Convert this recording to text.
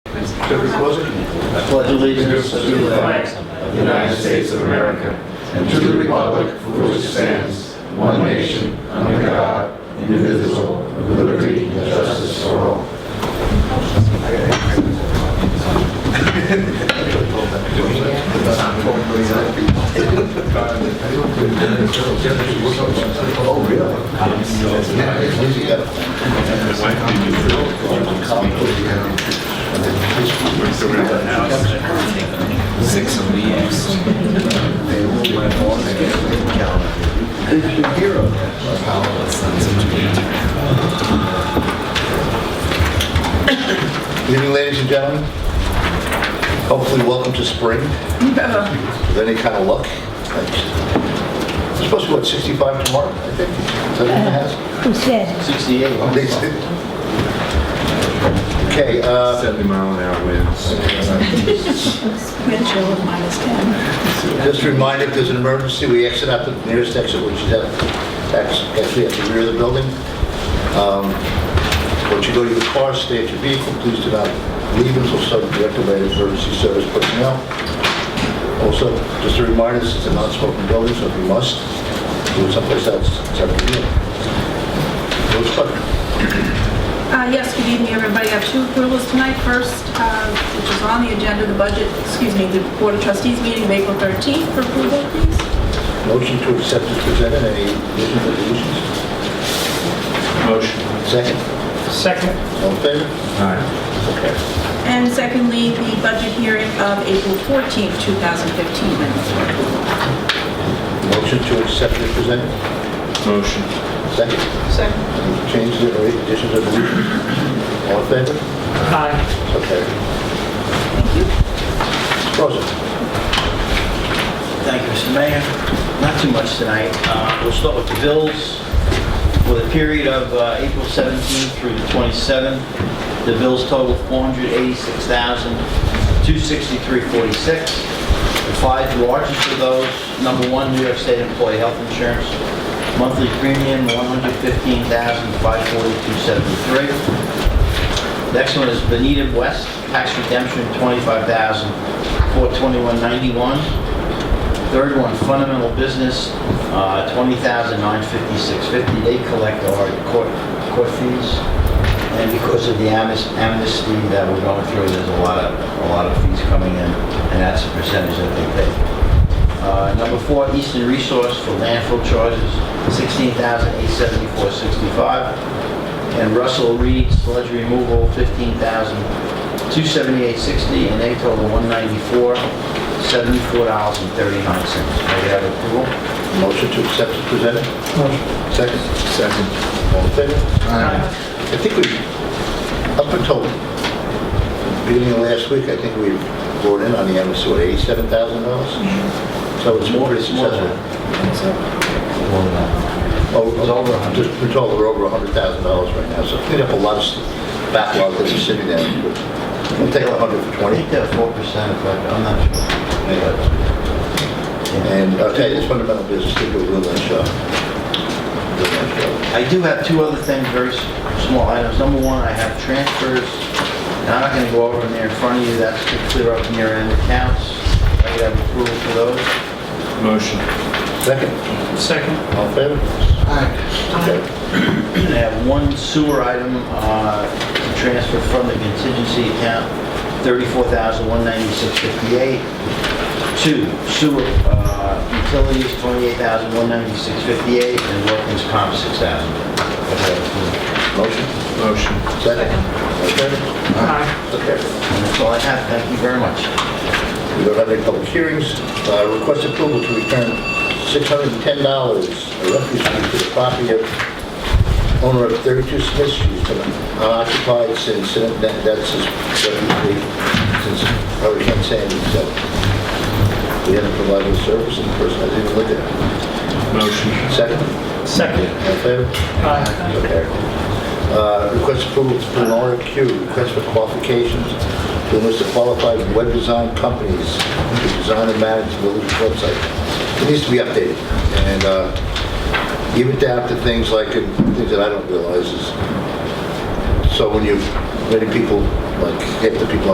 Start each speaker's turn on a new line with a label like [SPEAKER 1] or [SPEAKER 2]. [SPEAKER 1] Should we close it?
[SPEAKER 2] I pledge allegiance to the flag of the United States of America and to the republic for which it stands, one nation, under God, indivisible, with liberty and justice for all.
[SPEAKER 1] Good evening, ladies and gentlemen. Hopefully, welcome to spring. With any kind of luck. It's supposed to be, what, 65 tomorrow, I think? Is that what it has?
[SPEAKER 3] Who said?
[SPEAKER 2] 68.
[SPEAKER 1] They said- Okay, uh,
[SPEAKER 4] 70 mile an hour winds.
[SPEAKER 3] Wind chill of minus 10.
[SPEAKER 1] just a reminder, if there's an emergency, we exit out the nearest exit, which is at, that's actually at the rear of the building. Um, Once you go to your car, stay at your vehicle, please do not leave until some directed by emergency service personnel. Also, just a reminder, this is a non-smoking building, so if you must, do it someplace else, it's up to you. Rose Butler.
[SPEAKER 5] Uh, Yes, good evening, everybody. I have two approvals tonight. First, uh, which is on the agenda, the budget, excuse me, the Board of Trustees meeting of April 13th for approval, please.
[SPEAKER 1] Motion to accept is presented, any additions or deletions? Motion. Second? Second. All in favor? Okay.
[SPEAKER 5] And secondly, the budget hearing of April 14th, 2015 minutes.
[SPEAKER 1] Motion to accept is presented,
[SPEAKER 4] Motion.
[SPEAKER 1] second?
[SPEAKER 5] Second.
[SPEAKER 1] Any changes or additions or deletions? All in favor? Aye. Okay. Thank you. Rosa,
[SPEAKER 2] Thank you, Mr. Mayor. Not too much tonight. Uh, We'll start with the bills. For the period of uh, April 17th through the 27th, the bills total 486263 The five largest of those, number one, New York State Employee Health Insurance, monthly premium 115542 Next one is Benita West, tax redemption, 25421 Third one, fundamental business, uh, 20956 They collect our court, court fees. And because of the amis- amnesty that we're going through, there's a lot of, a lot of fees coming in, and that's the percentage that they pay. Uh, Number four, Eastern Resource for landfill charges, 16874 65 and Russell Reed sludge removal, fifteen thousand two seventy-eight sixty, and they total one ninety-four, seventy-four dollars and thirty-nine cents. May I have approval?
[SPEAKER 1] motion to accept is presented, second?
[SPEAKER 4] Second.
[SPEAKER 1] All in favor? I think we, up until beginning of last week, I think we brought in on the amnesty, what, eighty-seven thousand dollars? So it's more pretty
[SPEAKER 2] More
[SPEAKER 1] successful.
[SPEAKER 2] than- More than that.
[SPEAKER 1] Oh,
[SPEAKER 2] It's over a hundred.
[SPEAKER 1] Just, we're told we're over a hundred thousand dollars right now, so clean up a lot of s- backlog that's sitting there. We'll take a hundred for
[SPEAKER 2] I
[SPEAKER 1] twenty.
[SPEAKER 2] think they're four percent, but I'm not sure.
[SPEAKER 1] And, okay, this fundamental business, they do a real nice job. Real nice job.
[SPEAKER 2] I do have two other things, very s- small items. Number one, I have transfers. Now, I'm not going to go over them there in front of you, that's to clear up near end accounts. May I have approval for those?
[SPEAKER 4] Motion.
[SPEAKER 1] Second,
[SPEAKER 4] Second.
[SPEAKER 1] all in favor? Okay.
[SPEAKER 2] I have one sewer item, uh, to transfer from the contingency account, $34,196.58. Two, sewer uh, utilities, $28,196.58, and workman's comp, $6,000.
[SPEAKER 1] Motion,
[SPEAKER 4] Motion.
[SPEAKER 1] second, all in favor? Okay.
[SPEAKER 2] And that's all I have, thank you very much.
[SPEAKER 1] We don't have any public hearings. Uh, Request approval to return $610, a refuse fee to the property of owner of 32 Smith Street, It's been unoccupied since, uh, that- that's his refuse fee, since, I already can't say anything, so we haven't provided a service and the person hasn't even looked at it.
[SPEAKER 4] Motion.
[SPEAKER 1] Second?
[SPEAKER 4] Second.
[SPEAKER 1] All in favor? Okay. Uh, Request approval for an RFQ, request for qualifications for a list of qualified web design companies to design and manage the village website. It needs to be updated, and uh, even down to things like, uh, things that I don't realize is, so when you, many people, like, get the people